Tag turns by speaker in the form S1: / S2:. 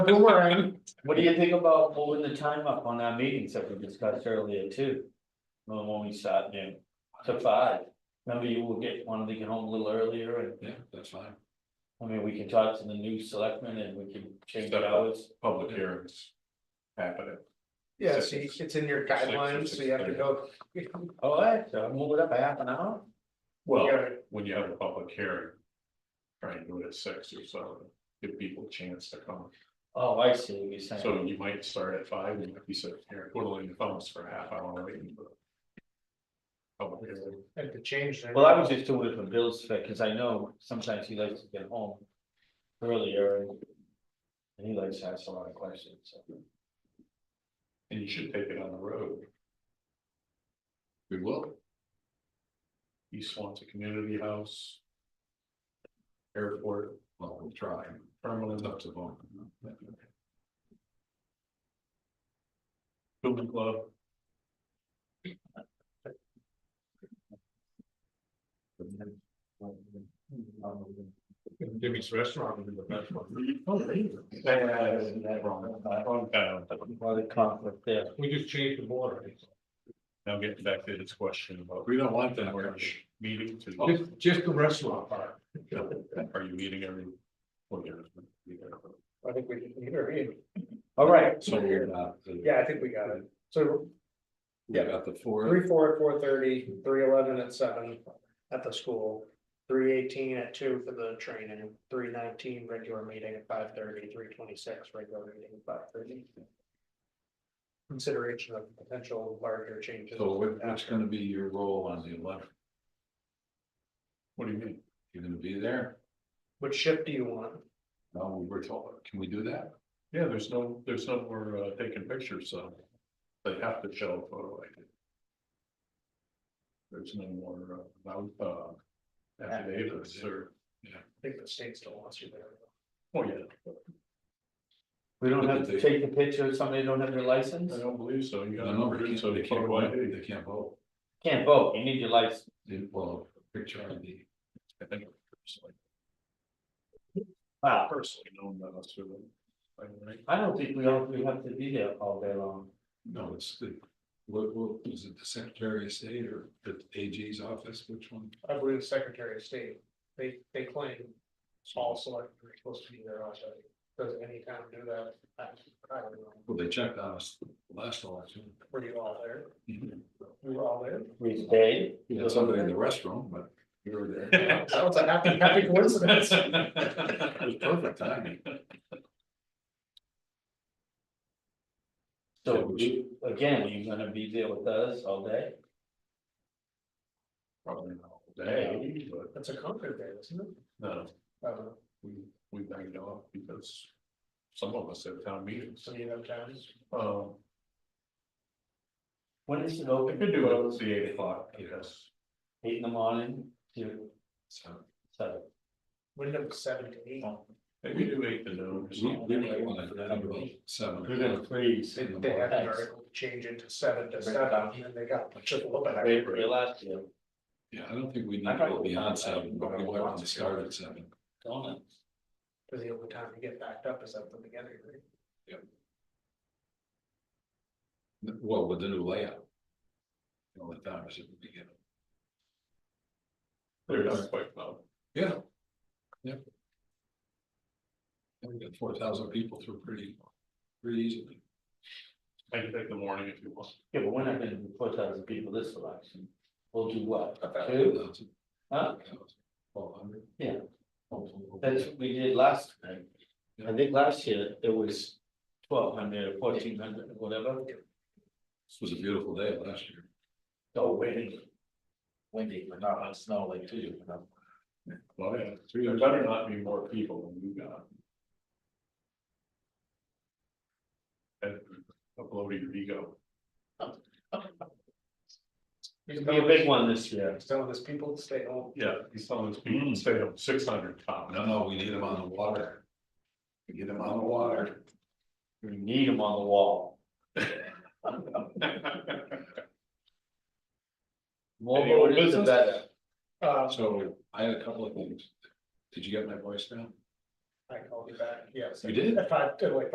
S1: Don't worry.
S2: What do you think about moving the time up on our meetings that we discussed earlier too? When when we sat noon to five, remember you will get one to get home a little earlier and,
S1: Yeah, that's fine.
S2: I mean, we can talk to the new selectmen and we can change hours.
S1: Public hearings. Happening.
S3: Yeah, so you- it's in your guidelines, so you have to go.
S2: All right, so move it up a half an hour,
S1: Well,
S3: Yeah.
S1: when you have a public hearing. Try and do it at six or so, give people a chance to come.
S2: oh, I see what you're saying,
S1: So you might start at five and you might be sitting here twiddling your thumbs for a half hour waiting. for Public hearing.
S3: Had to change that.
S2: well, I was just doing it for Bill's fit, cause I know sometimes he likes to get home earlier and. And he likes to ask a lot of questions, so.
S1: And you should take it on the road. We will. East Swansea Community House. Airport. Well, we'll try. Permanent up to them. Building club. Jimmy's restaurant would be the best one.
S2: uh,
S1: Wrong town.
S2: Lot of conflict there.
S1: We just changed the border. Now getting back to this question about. We don't want that. Meeting
S3: Oh.
S4: Oh,
S1: to.
S5: Just, just the restaurant part.
S1: Are you meeting every?
S3: I think we can leave it in.
S2: All right,
S4: So uh, we're not, the-
S3: Yeah, I think we got it. So
S4: we got the four,
S3: three, four at four thirty, three eleven at seven at the school. Three eighteen at two for the training, three nineteen regular meeting at five thirty, three twenty-six regular meeting at five thirty. Consideration of potential larger changes.
S4: so what, what's gonna be your role on the eleventh?
S1: What do you mean?
S4: You're gonna be there?
S3: Which shift do you want?
S4: No, we were told, can we do that?
S1: Yeah, there's no, there's no more uh, taking pictures, so they have to show a photo ID. There's no more uh, mount, uh, affidavits or,
S3: I think the state still wants you there.
S1: oh yeah,
S2: we don't have to take the picture, somebody don't have their license?
S1: I don't believe so. You
S4: No,
S1: got a
S4: no,
S1: number,
S4: they
S1: so
S4: can't, they
S1: you
S4: can't
S1: can't
S4: vote, they can't vote,
S2: Can't vote, you need your license.
S4: They- well, picture ID.
S1: I think personally,
S2: Wow,
S1: personally, no, no, that's really. I mean,
S2: I don't think we all, we have to be there all day long.
S4: No, it's the, what, what, is it the Secretary of State or the AG's office, which one?
S3: I believe the Secretary of State, they, they claim all selectmen are supposed to be there on Saturday. Does any town do that? I I don't know.
S4: Well, they checked on us last election.
S3: Were you all there?
S4: You
S3: We were all there?
S2: We stayed.
S4: had somebody in the restroom, but you were there.
S3: That was a happy, happy coincidence.
S4: It was perfect timing.
S2: So you, again, you gonna be there with us all day?
S1: Probably not all day, but
S3: That's a comfort day, isn't it?
S4: uh,
S1: no,
S3: I
S1: Uh-huh.
S3: don't know.
S1: we, we banged off because some of us have town meetings.
S3: Some of you have towns.
S1: Um,
S2: When is it
S1: I
S2: open?
S1: could do it at the eight o'clock, yes.
S2: Eight in the morning to
S4: So.
S2: seven.
S3: Wyndham was seven to eight.
S1: Maybe do eight to noon. or
S4: We
S1: something.
S4: we might want to have about seven.
S2: please.
S3: They they had an article to change it to seven to seven, and then they got just a little bit.
S2: They were last year,
S4: Yeah, I don't think we need
S2: I
S4: to
S2: thought
S4: go
S2: we
S4: beyond
S2: had that,
S4: seven, but we
S2: but I
S4: might want
S2: want
S4: to
S2: to
S4: start
S2: go.
S4: at seven.
S2: don't it?
S3: Because the only time to get backed up is at the beginning, right?
S4: Well, with the new layout. You know, the time is at the beginning.
S1: They're not quite loud.
S4: Yeah. Yeah. And We got four thousand people through pretty, pretty easily.
S1: I can take the morning if you want.
S2: Yeah, but we're not gonna do four thousand people this election. We'll do what?
S4: About
S2: Two?
S4: 4,000,
S2: Huh?
S4: 4,000, 1,200.
S2: Yeah.
S4: Hopefully, hopefully.
S2: That's what we did last time. I think last year it was twelve hundred, fourteen hundred, whatever.
S4: This was a beautiful day last year.
S2: So windy. Windy, but not on snow like two, you know.
S1: Well, yeah, there better not be more people than you got. And upload your ego.
S2: It'll be a big one this year. Mm.
S3: Some of those people stay home.
S1: Yeah, he's telling his people, stay up six hundred top.
S4: No, no, we need them on the water. We Get them on the water.
S2: We need them on the wall. More
S1: Any old
S2: voters, the
S1: business?
S2: better.
S3: Uh,
S4: So I had a couple of things. Did you get my voicemail?
S3: I called you back, yes.
S4: You did?
S3: At five, like